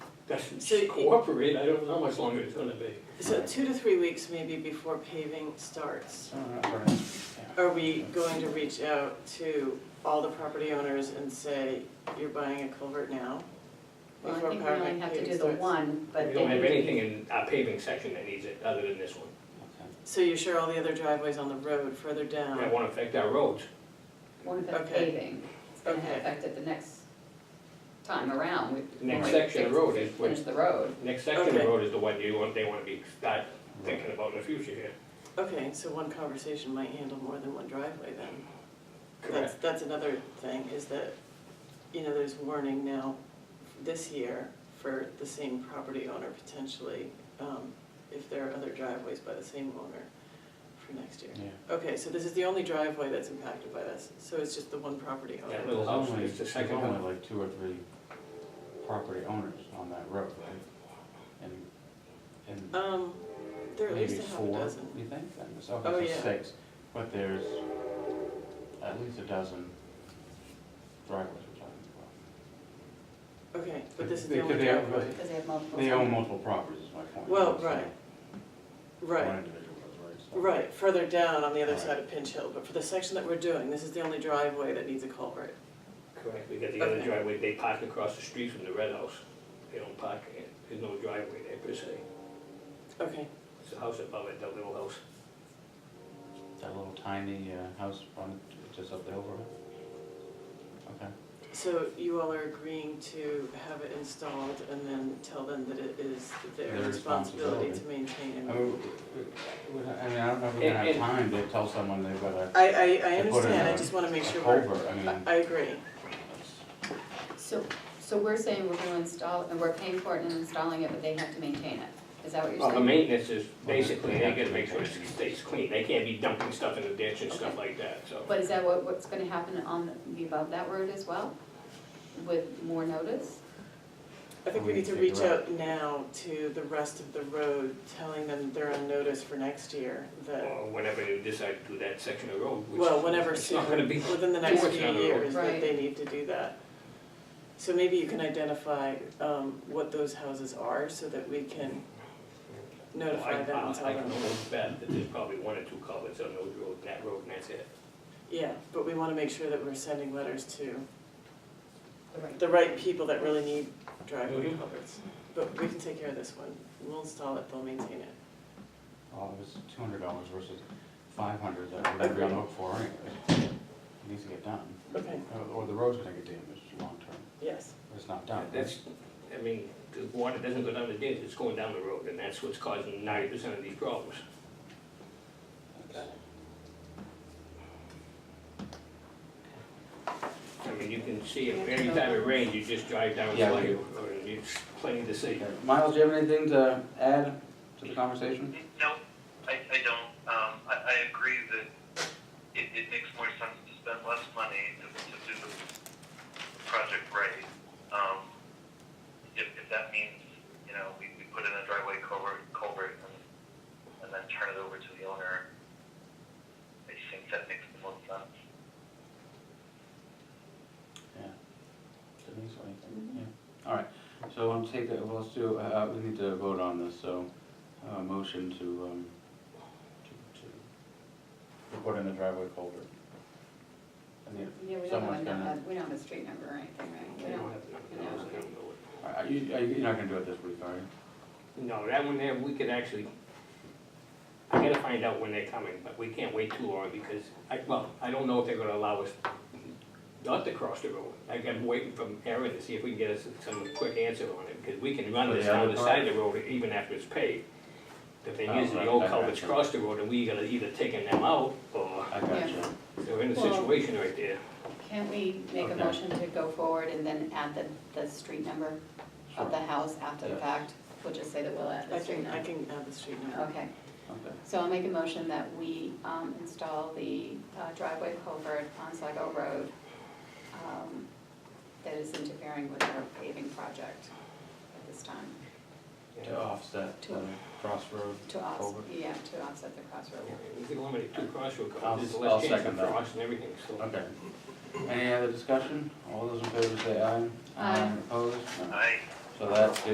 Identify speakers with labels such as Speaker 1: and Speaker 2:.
Speaker 1: doesn't
Speaker 2: So it-
Speaker 1: cooperate, I don't know how much longer it's gonna be.
Speaker 2: So two to three weeks maybe before paving starts. Are we going to reach out to all the property owners and say, you're buying a culvert now?
Speaker 3: Well, I
Speaker 2: Before
Speaker 3: think we
Speaker 2: paving-
Speaker 3: only have to
Speaker 2: paving
Speaker 3: do the
Speaker 2: starts?
Speaker 3: one, but
Speaker 1: We
Speaker 3: then
Speaker 1: don't have
Speaker 3: we-
Speaker 1: anything in our paving section that needs it, other than this one.
Speaker 2: So you share all the other driveways on the road further
Speaker 1: That
Speaker 2: down?
Speaker 1: won't affect our roads.
Speaker 3: won't affect
Speaker 2: Okay.
Speaker 3: paving. It's gonna
Speaker 2: Okay.
Speaker 3: affect it the next time around. We-
Speaker 1: The next
Speaker 3: when we
Speaker 1: section of
Speaker 3: fix-
Speaker 1: road is what-
Speaker 3: Finish the road.
Speaker 1: Next section of
Speaker 2: Okay.
Speaker 1: road is the one you want, they wanna be, start thinking about in the future here.
Speaker 2: Okay, so one conversation might handle more than one driveway then. That's,
Speaker 1: Correct.
Speaker 2: that's another thing, is that, you know, there's warning now this year for the same property owner potentially, um, if there are other driveways by the same owner for next year. Okay, so this is the only driveway that's impacted by this, so it's just the one property
Speaker 1: That
Speaker 2: owner.
Speaker 1: little
Speaker 4: There's
Speaker 1: house
Speaker 4: only,
Speaker 1: is the
Speaker 4: there's
Speaker 1: second
Speaker 4: only
Speaker 1: one.
Speaker 4: like two or three property owners on that road, right? And, and
Speaker 2: Um, there are at
Speaker 4: maybe
Speaker 2: least a half a
Speaker 4: four,
Speaker 2: dozen.
Speaker 4: you think? Then there's
Speaker 2: Oh,
Speaker 4: obviously
Speaker 2: yeah.
Speaker 4: six, but there's at least a dozen driveways we're talking about.
Speaker 2: Okay, but this is
Speaker 4: They-
Speaker 2: the only
Speaker 4: they have-
Speaker 2: driveway,
Speaker 3: Because they have multiple.
Speaker 4: They own multiple properties, is my point.
Speaker 2: Well,
Speaker 4: It's not
Speaker 2: right,
Speaker 4: One
Speaker 2: right,
Speaker 4: individual, right? so-
Speaker 2: right, further down on the other
Speaker 4: Right.
Speaker 2: side of Pinch Hill, but for the section that we're doing, this is the only driveway that needs a culvert.
Speaker 1: Correct, we got the other
Speaker 2: Okay.
Speaker 1: driveway, they park across the street from the red house. They don't park, eh, there's no driveway there per se.
Speaker 2: Okay,
Speaker 1: It's the house above it, that little house.
Speaker 4: That little tiny uh, house on, just up the hill from it? Okay,
Speaker 2: so you all are agreeing to have it installed and then tell them that it is their
Speaker 4: Their
Speaker 2: responsibility
Speaker 4: responsibility.
Speaker 2: to maintain
Speaker 4: I
Speaker 2: and.
Speaker 4: mean, we- we- Oh, I mean, I don't know if we're gonna
Speaker 1: And- and-
Speaker 4: have time to tell someone they've got a
Speaker 2: I, I, I
Speaker 4: They put in
Speaker 2: understand, I
Speaker 4: a-
Speaker 2: just wanna make
Speaker 4: a
Speaker 2: sure we're,
Speaker 4: culvert, I mean.
Speaker 2: I I agree,
Speaker 3: So, so we're saying we're gonna install, and we're paying for it and installing it, but they have to maintain it. Is that what you're
Speaker 2: Oh.
Speaker 1: Well, the
Speaker 3: saying?
Speaker 1: maintenance is basically, they gotta make sure it stays clean, they can't be dumping stuff in the ditch and stuff like that, so.
Speaker 3: But is that what, what's gonna happen on the above that road as well? With more notice?
Speaker 2: I think we
Speaker 4: We
Speaker 2: need to
Speaker 4: need to
Speaker 2: reach
Speaker 4: figure out-
Speaker 2: out now to the rest of the road, telling them they're on notice for next year, that,
Speaker 1: Or whenever they decide to do that section of road, which.
Speaker 2: well, whenever
Speaker 1: It's
Speaker 2: soon,
Speaker 1: not gonna be.
Speaker 2: within the next
Speaker 1: Yeah.
Speaker 2: few
Speaker 1: Yeah.
Speaker 2: years, that
Speaker 3: Right.
Speaker 2: they need to do that. So maybe you can identify, um, what those houses are, so that we can notify them and tell
Speaker 1: I
Speaker 2: them.
Speaker 1: can almost bet that there's probably one or two culverts on those road, that road, and that's it.
Speaker 2: Yeah, but we wanna make sure that we're sending letters to
Speaker 3: The right-
Speaker 2: the right people that really need driveway
Speaker 1: Mhm.
Speaker 2: culverts. But we can take care of this one, we'll install it, they'll maintain it.
Speaker 4: Well, oh, it was two hundred dollars versus five hundred that we're gonna look for anyways. It needs to get done, Oh,
Speaker 2: Okay,
Speaker 4: Or- or the road's gonna get damaged long term,
Speaker 2: yes,
Speaker 4: if it's not done.
Speaker 1: That's, I mean, the water doesn't go down the ditch, it's going down the road, and that's what's causing ninety percent of these problems.
Speaker 4: That's-
Speaker 1: I mean, you can see it, every time it rains, you just drive down the
Speaker 4: Yeah, we
Speaker 1: way,
Speaker 4: do.
Speaker 1: or it's plenty to see.
Speaker 4: Okay. Miles, do you have anything to add to the conversation?
Speaker 5: No, I, I don't. Um, I, I agree that it, it makes more sense to spend less money to, to do the project right. Um, if, if that means, you know, we, we put in a driveway culvert, culvert and, and then turn it over to the owner, I think that makes the most sense.
Speaker 4: Yeah. Denise, or
Speaker 1: Mm-hmm.
Speaker 4: anything? Yeah. All right, so I'm take that, well, let's do, uh, we need to vote on this, so, uh, motion to, um, to, to put in the driveway culvert. I need,
Speaker 3: Yeah, we don't have,
Speaker 4: someone's
Speaker 3: a
Speaker 4: gonna.
Speaker 3: num- we don't have a street number or anything, right? We
Speaker 1: They
Speaker 3: don't-
Speaker 1: don't have to- they don't know it.
Speaker 4: Are are you, are you, you're not gonna do it this week, are you?
Speaker 1: No, that one there, we could actually, I gotta find out when they're coming, but we can't wait too long because, I, well, I don't know if they're gonna allow us not to cross the road. I am waiting from Aaron to see if we can get us some quick answer on it, because we can run
Speaker 4: For
Speaker 1: this
Speaker 4: the
Speaker 1: down
Speaker 4: other
Speaker 1: the side of the road even after it's paved. The thing is,
Speaker 4: Oh,
Speaker 1: the
Speaker 4: right,
Speaker 1: old
Speaker 4: I
Speaker 1: culverts
Speaker 4: gotcha.
Speaker 1: cross the road and we gotta either taking them out or
Speaker 4: I got you.
Speaker 3: Yeah.
Speaker 1: they're in a
Speaker 3: Well-
Speaker 1: situation right there.
Speaker 3: Can't we make a
Speaker 4: Okay.
Speaker 3: motion to go forward and then add the, the street number
Speaker 4: Sure.
Speaker 3: of the house after the
Speaker 4: Yes.
Speaker 3: fact? We'll just say that we'll add
Speaker 2: I
Speaker 3: the street
Speaker 2: can, I
Speaker 3: number.
Speaker 2: can have the street number.
Speaker 3: Okay,
Speaker 4: Okay.
Speaker 3: so I'll make a motion that we um, install the uh, driveway culvert on Sligo Road um, that is interfering with our paving project at this time.
Speaker 4: To offset the
Speaker 3: To-
Speaker 4: crossroad
Speaker 3: To offset,
Speaker 4: culvert.
Speaker 3: yeah, to offset the crossroad.
Speaker 1: We can eliminate two crossroad
Speaker 4: I'll-
Speaker 1: culverts, there's
Speaker 4: I'll
Speaker 1: less chance of
Speaker 4: second that.
Speaker 1: frost and everything, so.
Speaker 4: Okay. Any other discussion? All those in favor say aye.
Speaker 3: Aye.
Speaker 4: Opposed? No.
Speaker 5: I,
Speaker 4: So that's